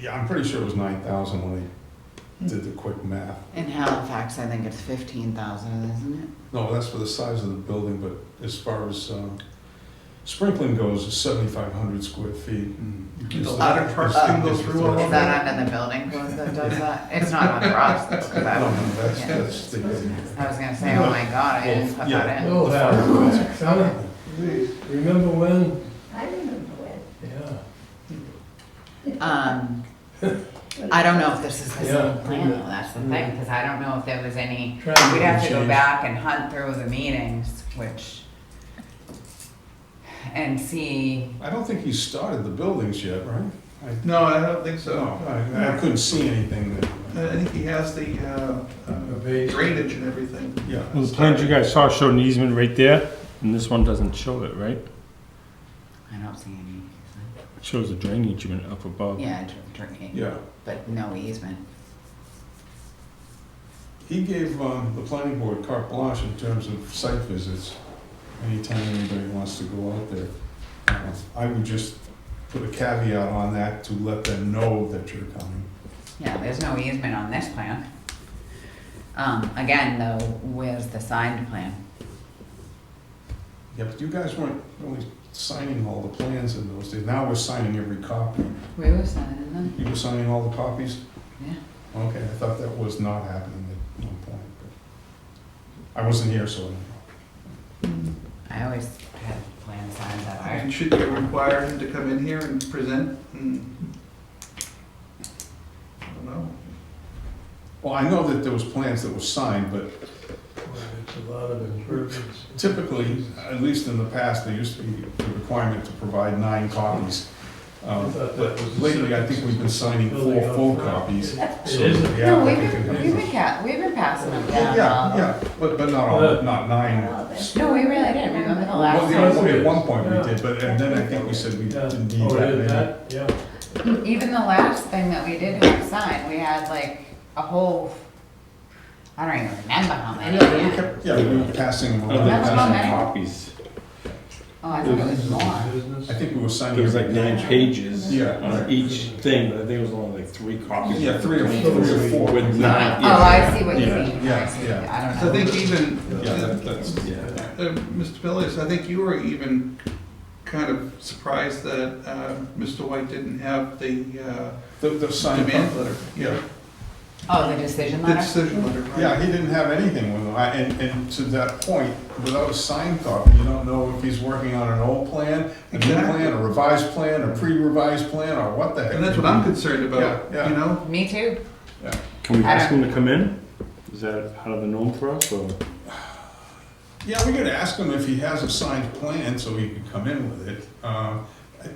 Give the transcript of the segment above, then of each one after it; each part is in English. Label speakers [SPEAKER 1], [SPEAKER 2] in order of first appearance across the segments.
[SPEAKER 1] Yeah, I'm pretty sure it was nine thousand when I did the quick math.
[SPEAKER 2] In Halifax, I think it's fifteen thousand, isn't it?
[SPEAKER 1] No, that's for the size of the building, but as far as, uh, sprinkling goes, it's seventy-five hundred square feet.
[SPEAKER 3] Did the
[SPEAKER 1] Is
[SPEAKER 3] ladder
[SPEAKER 1] that-
[SPEAKER 3] truck
[SPEAKER 1] is that-
[SPEAKER 3] thing go
[SPEAKER 1] is
[SPEAKER 3] through all
[SPEAKER 2] Uh, Is
[SPEAKER 3] of
[SPEAKER 2] that under the building code that does that? It's not under us, that's
[SPEAKER 1] No, no, that's,
[SPEAKER 2] Yeah.
[SPEAKER 1] that's the.
[SPEAKER 2] I was gonna say, oh my god, I didn't put that in.
[SPEAKER 4] Oh, that, Sally, please, remember when?
[SPEAKER 5] I remember when.
[SPEAKER 4] Yeah.
[SPEAKER 2] Um, I don't know if this is the
[SPEAKER 4] Yeah.
[SPEAKER 2] same plan, though, that's the thing, because I don't know if there was any,
[SPEAKER 4] Trying to
[SPEAKER 2] we'd have to go
[SPEAKER 4] change.
[SPEAKER 2] back and hunt through the meetings, which, and see,
[SPEAKER 1] I don't think he started the buildings yet, right?
[SPEAKER 3] No, I don't think so.
[SPEAKER 1] No, I, I couldn't see anything
[SPEAKER 3] I I
[SPEAKER 1] that,
[SPEAKER 3] think he has the uh, uh,
[SPEAKER 4] base.
[SPEAKER 3] drainage and everything.
[SPEAKER 1] yeah.
[SPEAKER 6] Well, the plans you guys saw showed an easement right there, and this one doesn't show it, right?
[SPEAKER 2] I don't see any.
[SPEAKER 6] It shows the drainage easement up above.
[SPEAKER 2] Yeah, dr- drinking,
[SPEAKER 1] Yeah,
[SPEAKER 2] but no easement.
[SPEAKER 1] he gave, um, the planning board carte blanche in terms of site visits, anytime anybody wants to go out there. Uh, I would just put a caveat on that to let them know that you're coming.
[SPEAKER 2] Yeah, there's no easement on this plan. Um, again, though, where's the signed plan?
[SPEAKER 1] Yeah, but you guys weren't really signing all the plans in those days. Now we're signing every copy.
[SPEAKER 2] We were signing them.
[SPEAKER 1] You were signing all the copies?
[SPEAKER 2] Yeah.
[SPEAKER 1] Okay, I thought that was not happening at one point, but I wasn't here, so I don't know.
[SPEAKER 2] I always had plans signed that I,
[SPEAKER 3] And should you require him to come in here and present? Hmm. I don't know.
[SPEAKER 1] Well, I know that there was plans that were signed, but
[SPEAKER 4] It's a lot of improvements.
[SPEAKER 1] typically, at least in the past, there used to be the requirement to provide nine copies. Um, But lately, I think we've been signing four full copies. so
[SPEAKER 4] It
[SPEAKER 1] that
[SPEAKER 4] isn't.
[SPEAKER 1] the
[SPEAKER 2] No, we've
[SPEAKER 1] applicant
[SPEAKER 2] been, um,
[SPEAKER 1] can-
[SPEAKER 2] we've been ca, we've been passing them
[SPEAKER 1] Yeah,
[SPEAKER 2] down.
[SPEAKER 1] yeah, but, but not all, not nine
[SPEAKER 2] No, we really didn't, remember the
[SPEAKER 1] Well,
[SPEAKER 2] last
[SPEAKER 1] the
[SPEAKER 2] time?
[SPEAKER 1] other thing at one point we did, but, and then I think we said we
[SPEAKER 4] Yeah.
[SPEAKER 1] didn't need
[SPEAKER 4] Oh,
[SPEAKER 1] that
[SPEAKER 4] it is
[SPEAKER 1] many.
[SPEAKER 4] that, yeah.
[SPEAKER 2] Even the last thing that we did have signed, we had like a whole, I don't even remember how many.
[SPEAKER 1] Yeah, we kept, yeah, we were passing them
[SPEAKER 6] I don't
[SPEAKER 1] around.
[SPEAKER 6] think
[SPEAKER 2] That's
[SPEAKER 6] there's
[SPEAKER 2] not
[SPEAKER 6] any
[SPEAKER 2] many.
[SPEAKER 6] copies.
[SPEAKER 2] Oh, I thought it was more.
[SPEAKER 1] I
[SPEAKER 4] Business.
[SPEAKER 1] think we were signing.
[SPEAKER 6] There was like
[SPEAKER 1] every-
[SPEAKER 6] nine pages
[SPEAKER 1] Yeah.
[SPEAKER 6] on each thing, but I think it was only like three copies.
[SPEAKER 1] Yeah, three or
[SPEAKER 6] Between
[SPEAKER 1] four,
[SPEAKER 6] those
[SPEAKER 1] three or four.
[SPEAKER 6] With nine.
[SPEAKER 2] Oh, I see what you
[SPEAKER 6] Yeah,
[SPEAKER 2] mean, I
[SPEAKER 1] yeah,
[SPEAKER 2] see,
[SPEAKER 1] yeah.
[SPEAKER 2] I
[SPEAKER 3] So I
[SPEAKER 2] don't know.
[SPEAKER 3] think even,
[SPEAKER 1] Yeah, that-
[SPEAKER 3] uh,
[SPEAKER 1] that's,
[SPEAKER 6] Yeah.
[SPEAKER 3] Mr. Billius, I think you were even kind of surprised that uh, Mr. White didn't have the uh,
[SPEAKER 1] the, the sign.
[SPEAKER 3] demand letter.
[SPEAKER 1] Yeah,
[SPEAKER 2] Oh, the decision
[SPEAKER 3] The
[SPEAKER 2] letter?
[SPEAKER 3] decision letter, right?
[SPEAKER 1] yeah, he didn't have anything with him, I- and, and to that point, without a signed copy, you don't know if he's working on an old plan, a new
[SPEAKER 3] Exactly.
[SPEAKER 1] plan, a revised plan, a pre-revised plan, or what the heck.
[SPEAKER 3] And that's what I'm concerned about,
[SPEAKER 1] Yeah, yeah.
[SPEAKER 3] you know?
[SPEAKER 2] Me too.
[SPEAKER 6] Can we
[SPEAKER 2] I
[SPEAKER 6] ask
[SPEAKER 2] don't-
[SPEAKER 6] them to come in? Is that out of the norm for us, or?
[SPEAKER 1] Yeah, we could ask him if he has a signed plan so he could come in with it. Um, I-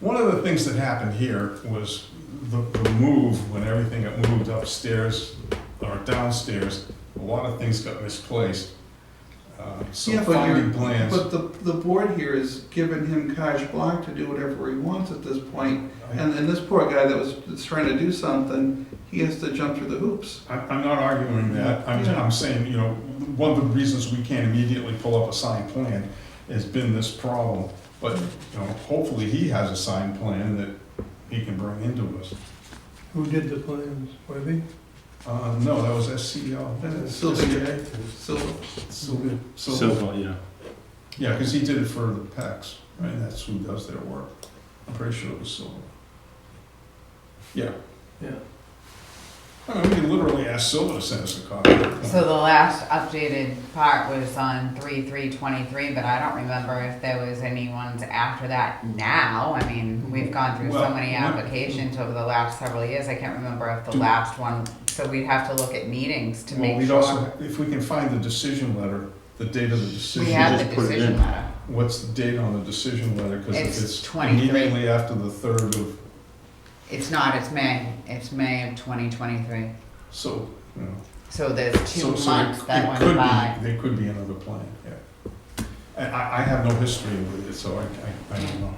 [SPEAKER 1] One of the things that happened here was the, the move, when everything got moved upstairs or downstairs, a lot of things got misplaced. Uh, So
[SPEAKER 3] Yeah, but
[SPEAKER 1] finding
[SPEAKER 3] you're-
[SPEAKER 1] plans,
[SPEAKER 3] But the, the board here is giving him carte blanche to do whatever he wants at this point.
[SPEAKER 1] I-
[SPEAKER 3] And, and this poor guy that was that's trying to do something, he has to jump through the hoops.
[SPEAKER 1] I- I'm not arguing that. I'm,
[SPEAKER 3] Yeah.
[SPEAKER 1] I'm saying, you know, one of the reasons we can't immediately pull up a signed plan has been this problem. But, you know, hopefully he has a signed plan that he can bring into us.
[SPEAKER 4] Who did the plans, Webby?
[SPEAKER 1] Uh, no, that was SCO.
[SPEAKER 3] Uh, Sylvia. So,
[SPEAKER 1] Sylvia. Sylvia.
[SPEAKER 6] Silver, yeah.
[SPEAKER 1] Yeah, because he did it for the PECs, right? That's who does their work. I'm pretty sure it was Sylvia. Yeah.
[SPEAKER 4] Yeah.
[SPEAKER 1] I mean, we can literally ask Sylvia to send us a copy.
[SPEAKER 2] So the last updated part was on three, three, twenty-three, but I don't remember if there was any ones after that now. I mean, we've gone through so
[SPEAKER 1] Well,
[SPEAKER 2] many
[SPEAKER 1] what-
[SPEAKER 2] applications over the last several years, I can't remember if the
[SPEAKER 1] Do-
[SPEAKER 2] last one, so we'd have to look at meetings to
[SPEAKER 1] Well,
[SPEAKER 2] make
[SPEAKER 1] we'd
[SPEAKER 2] sure.
[SPEAKER 1] also, if we can find the decision letter, the date of the
[SPEAKER 2] We
[SPEAKER 1] decision.
[SPEAKER 2] have
[SPEAKER 6] just
[SPEAKER 2] the
[SPEAKER 6] put it
[SPEAKER 2] decision
[SPEAKER 6] in.
[SPEAKER 2] letter.
[SPEAKER 1] What's the date on the decision letter? Because
[SPEAKER 2] It's
[SPEAKER 1] if it's
[SPEAKER 2] 23.
[SPEAKER 1] immediately after the third of,
[SPEAKER 2] It's not, it's May, it's May of twenty twenty-three.
[SPEAKER 1] so, you know.
[SPEAKER 2] So there's two
[SPEAKER 1] So- so it-
[SPEAKER 2] months
[SPEAKER 1] it
[SPEAKER 2] that
[SPEAKER 1] could
[SPEAKER 2] went
[SPEAKER 1] be-
[SPEAKER 2] by.
[SPEAKER 1] There could be another plan, yeah. And I, I have no history with it, so I, I, I don't know.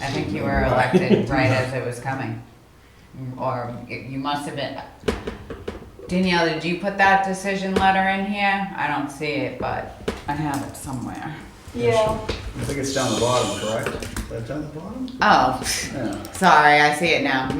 [SPEAKER 2] I think you were elected right as it was coming. Or y- you must have been. Danielle, did you put that decision letter in here? I don't see it, but I have it somewhere.
[SPEAKER 5] Yeah,
[SPEAKER 1] I think it's down the bottom, correct? Is that down the bottom?
[SPEAKER 2] Oh,
[SPEAKER 1] Yeah.
[SPEAKER 2] sorry, I see it now.